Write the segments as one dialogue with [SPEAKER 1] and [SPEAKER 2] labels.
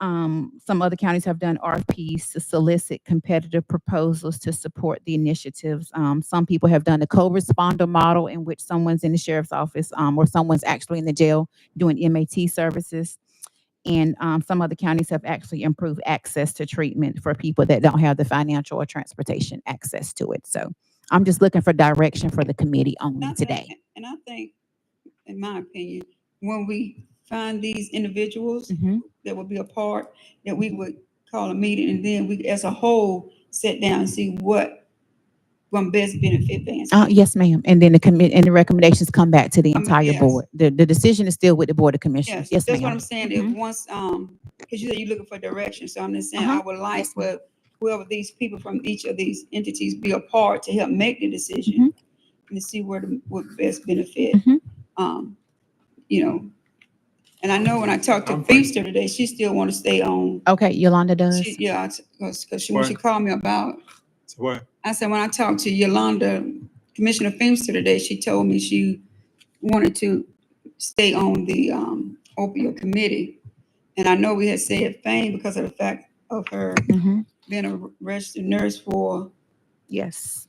[SPEAKER 1] Um, some other counties have done RFPs to solicit competitive proposals to support the initiatives. Um, some people have done the co-responder model in which someone's in the sheriff's office, um, or someone's actually in the jail doing MAT services. And, um, some other counties have actually improved access to treatment for people that don't have the financial or transportation access to it. So I'm just looking for direction for the committee
[SPEAKER 2] And I
[SPEAKER 1] only
[SPEAKER 2] think-
[SPEAKER 1] today.
[SPEAKER 2] And I think, in my opinion, when we find these individuals
[SPEAKER 1] Mhm.
[SPEAKER 2] that would be a part, that we would call a meeting and then we, as a whole, sit down and see what will best benefit Vance.
[SPEAKER 1] Uh, yes, ma'am. And then the commit, and the recommendations come back to the
[SPEAKER 2] Um,
[SPEAKER 1] entire
[SPEAKER 2] yes.
[SPEAKER 1] board. The, the decision is still with the Board of Commissioners.
[SPEAKER 2] Yes,
[SPEAKER 1] Yes,
[SPEAKER 2] that's what
[SPEAKER 1] ma'am.
[SPEAKER 2] I'm saying. If
[SPEAKER 1] Mhm.
[SPEAKER 2] once, um, because you said you're looking for direction, so I'm just saying
[SPEAKER 1] Uh-huh.
[SPEAKER 2] I would like
[SPEAKER 1] Yes, ma'am.
[SPEAKER 2] for whoever these people from each of these entities be a part to help make the decision
[SPEAKER 1] Mm-hmm.
[SPEAKER 2] and to see where the, would best benefit.
[SPEAKER 1] Mhm.
[SPEAKER 2] Um, you know, and I know when I talked to
[SPEAKER 3] I'm fine.
[SPEAKER 2] Feaster today, she still want to stay on.
[SPEAKER 1] Okay, Yolanda does.
[SPEAKER 2] She, yeah, because she, when she
[SPEAKER 3] Right.
[SPEAKER 2] called me about
[SPEAKER 3] So what?
[SPEAKER 2] I said, when I talked to Yolanda, Commissioner Feenster today, she told me she wanted to stay on the um, opioid committee. And I know we had said Fame because of the fact of her
[SPEAKER 1] Mhm.
[SPEAKER 2] being a registered nurse for
[SPEAKER 1] Yes.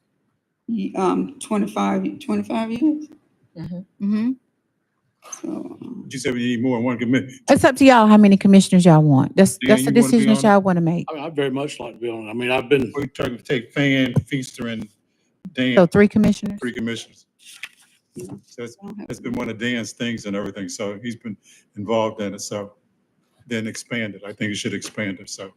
[SPEAKER 2] um, 25, 25 years.
[SPEAKER 1] Mhm.
[SPEAKER 2] So, um,
[SPEAKER 3] You said we need more than one committee.
[SPEAKER 1] It's up to y'all how many commissioners y'all want. That's,
[SPEAKER 3] Yeah,
[SPEAKER 1] that's the
[SPEAKER 3] you wanna be
[SPEAKER 1] decision that
[SPEAKER 3] on it?
[SPEAKER 1] y'all want to make.
[SPEAKER 4] I mean, I'd very much like to be on it. I mean, I've been,
[SPEAKER 3] We trying to take Fan, Feaster, and
[SPEAKER 1] So
[SPEAKER 3] Dan,
[SPEAKER 1] three commissioners?
[SPEAKER 3] three commissioners.
[SPEAKER 2] you know,
[SPEAKER 3] So it's,
[SPEAKER 2] I don't have-
[SPEAKER 3] it's been one of Dan's things and everything, so he's been involved in it, so then expand it. I think it should expand it, so,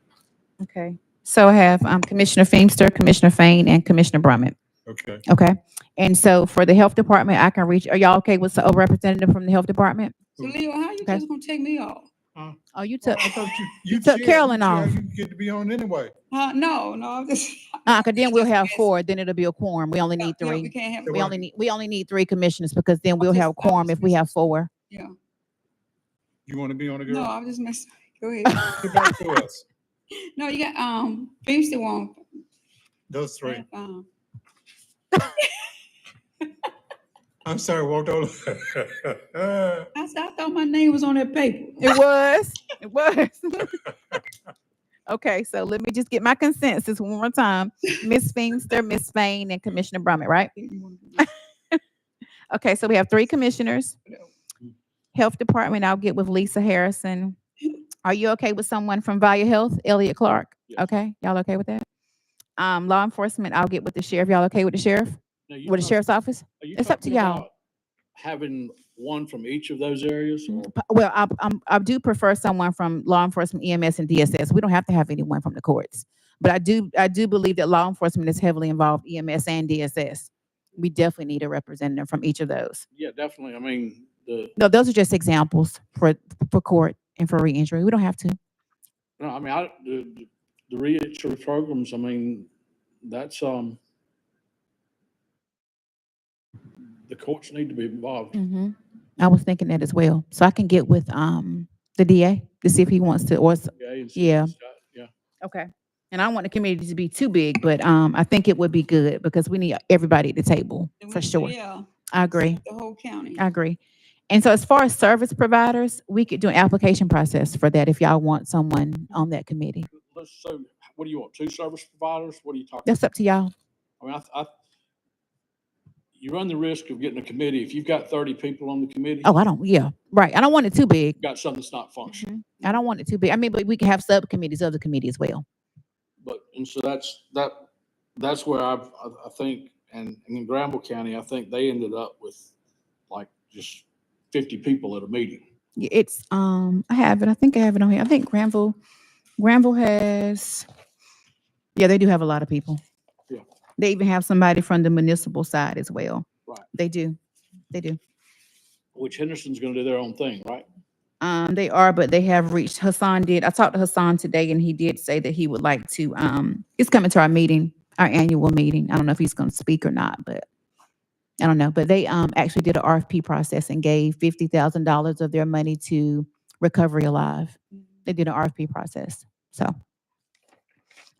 [SPEAKER 1] Okay. So I have, um, Commissioner Feemster, Commissioner Fain, and Commissioner Brummett.
[SPEAKER 3] okay.
[SPEAKER 1] Okay. And so for the Health Department, I can reach, are y'all okay with a representative from the Health Department?
[SPEAKER 2] So Leo, how you
[SPEAKER 1] Okay.
[SPEAKER 2] just gonna take me off?
[SPEAKER 1] Oh, you took,
[SPEAKER 3] I thought you-
[SPEAKER 1] You took
[SPEAKER 3] chair-
[SPEAKER 1] Carolyn
[SPEAKER 3] chair,
[SPEAKER 1] off.
[SPEAKER 3] You get to be on anyway.
[SPEAKER 2] Huh? Uh, No, no, I'm just.
[SPEAKER 1] uh, 'cause then we'll have
[SPEAKER 2] Yes.
[SPEAKER 1] four, then it'll be a quorum. We only need
[SPEAKER 2] No,
[SPEAKER 1] three.
[SPEAKER 2] We can't have.
[SPEAKER 3] It
[SPEAKER 1] We
[SPEAKER 3] work.
[SPEAKER 1] only need, we only need three commissioners because then we'll
[SPEAKER 2] just-
[SPEAKER 1] have
[SPEAKER 2] I'm
[SPEAKER 1] quorum if
[SPEAKER 2] just
[SPEAKER 1] we have four.
[SPEAKER 2] Yeah,
[SPEAKER 3] You want to be on it,
[SPEAKER 2] no,
[SPEAKER 3] girl?
[SPEAKER 2] I'm just messing. Go ahead.
[SPEAKER 3] Get back to us.
[SPEAKER 2] No, you got, um, Feenster won't.
[SPEAKER 3] Those three.
[SPEAKER 2] Um,
[SPEAKER 3] I'm sorry, walked all over.
[SPEAKER 2] I said, I thought my name was on that paper.
[SPEAKER 1] It was, it was. Okay, so let me just get my consensus one more time. Ms. Feenster, Ms. Fain, and Commissioner Brummett, right? Mm-hmm. Okay, so we have three commissioners. Health Department, I'll get with Lisa Harrison. Are you okay with someone from Value Health, Elliot Clark?
[SPEAKER 4] Yes.
[SPEAKER 1] Okay, y'all okay with that? Um, law enforcement, I'll get with the sheriff. Y'all okay with the sheriff?
[SPEAKER 4] now you
[SPEAKER 1] With the
[SPEAKER 4] talk-
[SPEAKER 1] sheriff's office?
[SPEAKER 4] are you
[SPEAKER 1] it's up to
[SPEAKER 4] talking
[SPEAKER 1] y'all.
[SPEAKER 4] about Having one from each of those areas or?
[SPEAKER 1] P- Well, I, I'm, I do prefer someone from law enforcement, EMS and DSS. We don't have to have anyone from the courts. But I do, I do believe that law enforcement is heavily involved, EMS and DSS. We definitely need a representative from each of those.
[SPEAKER 4] Yeah, definitely. I mean, the,
[SPEAKER 1] No, those are just examples for, for court and for re-injury. We don't have to.
[SPEAKER 4] no, I mean, I, the, the- the reentry programs, I mean, that's, um, the courts need to be involved.
[SPEAKER 1] Mm-hmm. I was thinking that as well. So I can get with, um, the DA to see if he wants to, or, s-
[SPEAKER 4] okay, and see
[SPEAKER 1] Mm-hmm. Yeah.
[SPEAKER 4] what's got- Yeah.
[SPEAKER 1] okay. And I don't want the committee to be too big, but, um, I think it would be good because we need everybody at the table, for sure.
[SPEAKER 2] Yeah.
[SPEAKER 1] I agree.
[SPEAKER 2] The whole county.
[SPEAKER 1] I agree. And so as far as service providers, we could do an application process for that if y'all want someone on that committee.
[SPEAKER 4] Let's, so what do you want? Two service providers? What are you talking?
[SPEAKER 1] That's up to y'all.
[SPEAKER 4] I mean, I, th- I, you run the risk of getting a committee. If you've got thirty people on the committee,
[SPEAKER 1] Oh, I don't, yeah, right. I don't want it too big.
[SPEAKER 4] you've got something that's not functioning.
[SPEAKER 1] I don't want it too big. I mean, but we can have subcommittees of the committee as well.
[SPEAKER 4] But, and so that's, that, that's where I've, I, I think, and, and in Granville County, I think they ended up with like just fifty people at a meeting.
[SPEAKER 1] Y- It's, um, I have it. I think I have it on here. I think Granville, Granville has, yeah, they do have a lot of people.
[SPEAKER 4] Yeah.
[SPEAKER 1] They even have somebody from the municipal side as well.
[SPEAKER 4] Right.
[SPEAKER 1] They do. They do.
[SPEAKER 4] Which Henderson's gonna do their own thing, right?
[SPEAKER 1] Um, they are, but they have reached, Hassan did, I talked to Hassan today and he did say that he would like to, um, he's coming to our meeting, our annual meeting. I don't know if he's gonna speak or not, but I don't know, but they, um, actually did an RFP process and gave fifty thousand dollars of their money to Recovery Alive. They did an RFP process, so.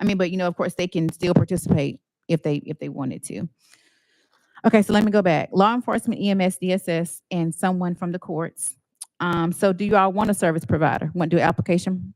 [SPEAKER 1] I mean, but you know, of course, they can still participate if they, if they wanted to. Okay, so let me go back. Law enforcement, E EMS, DSS, and someone from the courts. Um, so do you all want a service provider? Want to do application